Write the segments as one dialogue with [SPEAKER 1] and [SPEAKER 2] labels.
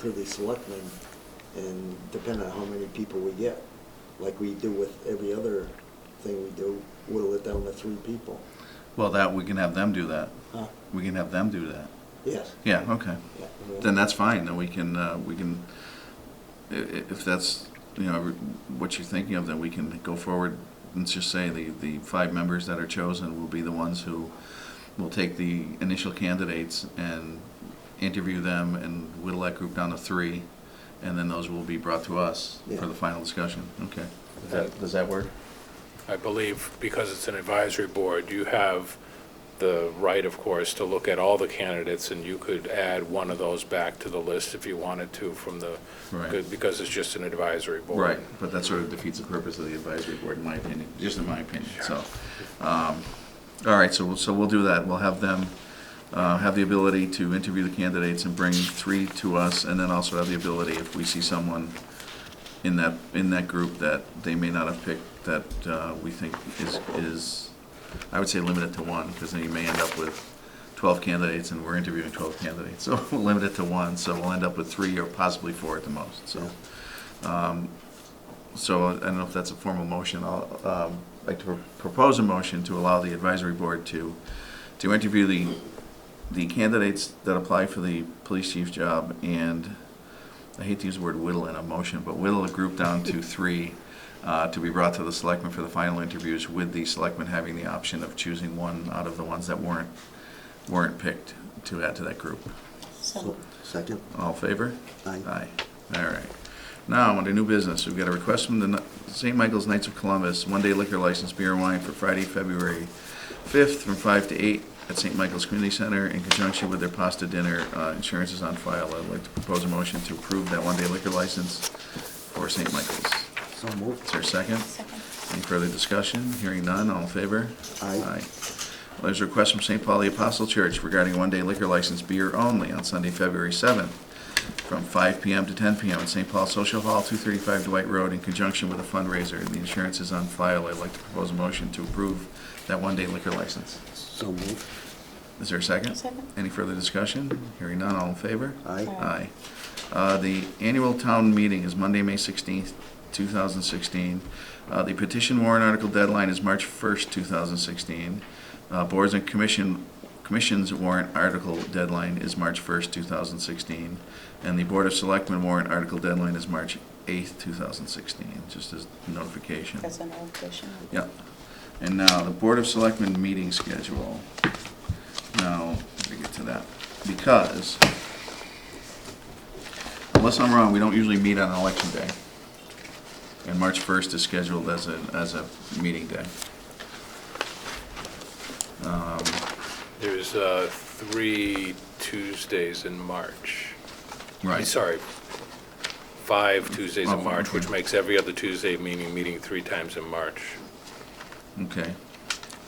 [SPEAKER 1] to the selectmen and depending on how many people we get, like we do with every other thing we do, whittle it down to three people.
[SPEAKER 2] Well, that, we can have them do that.
[SPEAKER 1] Huh?
[SPEAKER 2] We can have them do that.
[SPEAKER 1] Yes.
[SPEAKER 2] Yeah, okay.
[SPEAKER 1] Yeah.
[SPEAKER 2] Then that's fine, then we can, uh, we can, i- i- if that's, you know, what you're thinking of, then we can go forward and just say the, the five members that are chosen will be the ones who will take the initial candidates and interview them and whittle that group down to three, and then those will be brought to us
[SPEAKER 1] Yeah.
[SPEAKER 2] for the final discussion, okay? Does that, does that work?
[SPEAKER 3] I believe, because it's an advisory board, you have the right, of course, to look at all the candidates, and you could add one of those back to the list if you wanted to from the,
[SPEAKER 2] Right.
[SPEAKER 3] because it's just an advisory board.
[SPEAKER 2] Right, but that sort of defeats the purpose of the advisory board, in my opinion, just in my opinion, so. um, All right, so, we'll- so we'll do that, we'll have them, uh, have the ability to interview the candidates and bring three to us, and then also have the ability, if we see someone in that, in that group that they may not have picked, that uh, we think is, is, I would say limit it to one, because then you may end up with twelve candidates, and we're interviewing twelve candidates, so we'll limit it to one, so we'll end up with three or possibly four at the most, so. So I don't know if that's a formal motion. I'll um, like to propose a motion to allow the advisory board to, to interview the, the candidates that apply for the police chief job and, I hate to use the word whittle in a motion, but whittle a group down to three uh, to be brought to the selectmen for the final interviews with the selectmen having the option of choosing one out of the ones that weren't, weren't picked to add to that group.
[SPEAKER 1] So, Second?
[SPEAKER 2] All in favor?
[SPEAKER 1] Aye.
[SPEAKER 2] Aye. All right. Now, under new business, we've got a request from the St. Michael's Knights of Columbus, one-day liquor license beer and wine for Friday, February 5th from 5 to 8 at St. Michael's Community Center in conjunction with their pasta dinner. Uh, Insurance is on file. I'd like to propose a motion to approve that one-day liquor license for St. Michael's.
[SPEAKER 1] So moved.
[SPEAKER 2] Is there a second?
[SPEAKER 4] Second.
[SPEAKER 2] Any further discussion? Hearing none, all in favor?
[SPEAKER 1] Aye.
[SPEAKER 2] Well, There's a request from St. Paul the Apostle Church regarding a one-day liquor license beer only on Sunday, February 7th, from 5 PM to 10 PM at St. Paul Social Hall, 235 Dwight Road, in conjunction with a fundraiser. And the insurance is on file. I'd like to propose a motion to approve that one-day liquor license.
[SPEAKER 1] So moved.
[SPEAKER 2] Is there a second?
[SPEAKER 4] Second.
[SPEAKER 2] Any further discussion? Hearing none, all in favor?
[SPEAKER 1] Aye.
[SPEAKER 2] Aye. Uh, The annual town meeting is Monday, May 16th, 2016. Uh, The petition warrant article deadline is March 1st, 2016. Uh, Boards and commission, commissions warrant article deadline is March 1st, 2016. And the Board of Selectmen warrant article deadline is March 8th, 2016, just as notification.
[SPEAKER 4] That's an old question.
[SPEAKER 2] Yeah. And now, the Board of Selectmen meeting schedule. Now, let me get to that, because unless I'm wrong, we don't usually meet on election day. And March first is scheduled as a, as a meeting day. Um,
[SPEAKER 3] There's uh, three Tuesdays in March. Eh,
[SPEAKER 2] Right.
[SPEAKER 3] Sorry, five Tuesdays
[SPEAKER 2] Oh,
[SPEAKER 3] in March, which
[SPEAKER 2] okay.
[SPEAKER 3] makes every other Tuesday meeting, meeting three times in March.
[SPEAKER 2] Okay,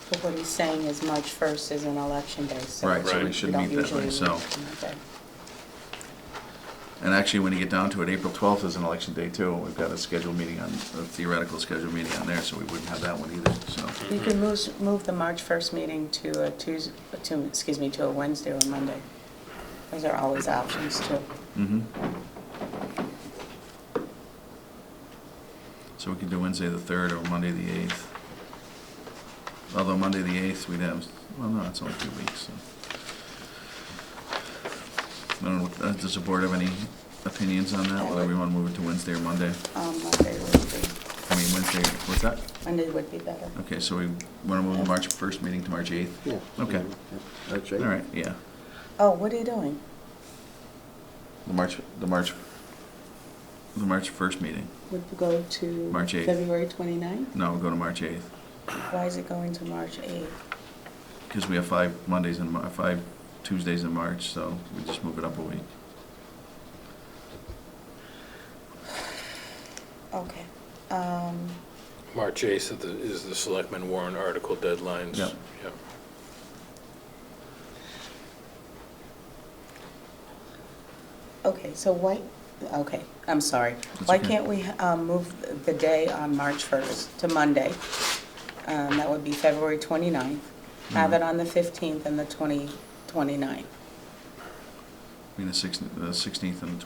[SPEAKER 4] But what he's saying is March 1st is an election day, so.
[SPEAKER 2] right, so
[SPEAKER 3] Right.
[SPEAKER 2] we
[SPEAKER 3] We
[SPEAKER 2] should
[SPEAKER 4] don't
[SPEAKER 2] meet that
[SPEAKER 4] usually
[SPEAKER 2] way, so.
[SPEAKER 4] meet on that day.
[SPEAKER 2] And actually, when you get down to it, April twelfth is an election day too. We've got a scheduled meeting on, a theoretical scheduled meeting on there, so we wouldn't have that one either, so.
[SPEAKER 4] We can move, move the March 1st meeting to a Tuesday, to, excuse me, to a Wednesday or Monday. Those are always options too.
[SPEAKER 2] Mm-hmm. So we could do Wednesday the third or Monday the eighth. Although Monday the eighth, we'd have, well, no, it's only two weeks, so. I don't know, uh, does the board have any opinions on that, whether we wanna move it to Wednesday or Monday?
[SPEAKER 4] Um, Monday would be,
[SPEAKER 2] I mean, Wednesday, what's that?
[SPEAKER 4] Monday would be better.
[SPEAKER 2] Okay, so we wanna move the March first meeting to March eighth?
[SPEAKER 1] Yeah.
[SPEAKER 2] Okay,
[SPEAKER 1] That's
[SPEAKER 2] all right, yeah.
[SPEAKER 4] Oh, what are you doing?
[SPEAKER 2] The March, the March, the March first meeting.
[SPEAKER 4] Would you go to?
[SPEAKER 2] March 8th.
[SPEAKER 4] February 29th?
[SPEAKER 2] No, we'll go to March eighth.
[SPEAKER 4] Why is it going to March 8th?
[SPEAKER 2] Because we have five Mondays and five Tuesdays in March, so we just move it up a week.
[SPEAKER 4] Okay. Um,
[SPEAKER 3] March 8th is the- is the selectmen warrant article deadlines.
[SPEAKER 2] Yep.
[SPEAKER 3] Yep.
[SPEAKER 4] Okay, so why, okay, I'm sorry.
[SPEAKER 2] That's
[SPEAKER 4] Why
[SPEAKER 2] okay.
[SPEAKER 4] can't we um, move the day on March 1st to Monday? Um, That would be February 29th.
[SPEAKER 2] Mm-hmm.
[SPEAKER 4] Have it on the 15th and the 20, 29th.
[SPEAKER 2] I mean, the sixteenth, the sixteenth and the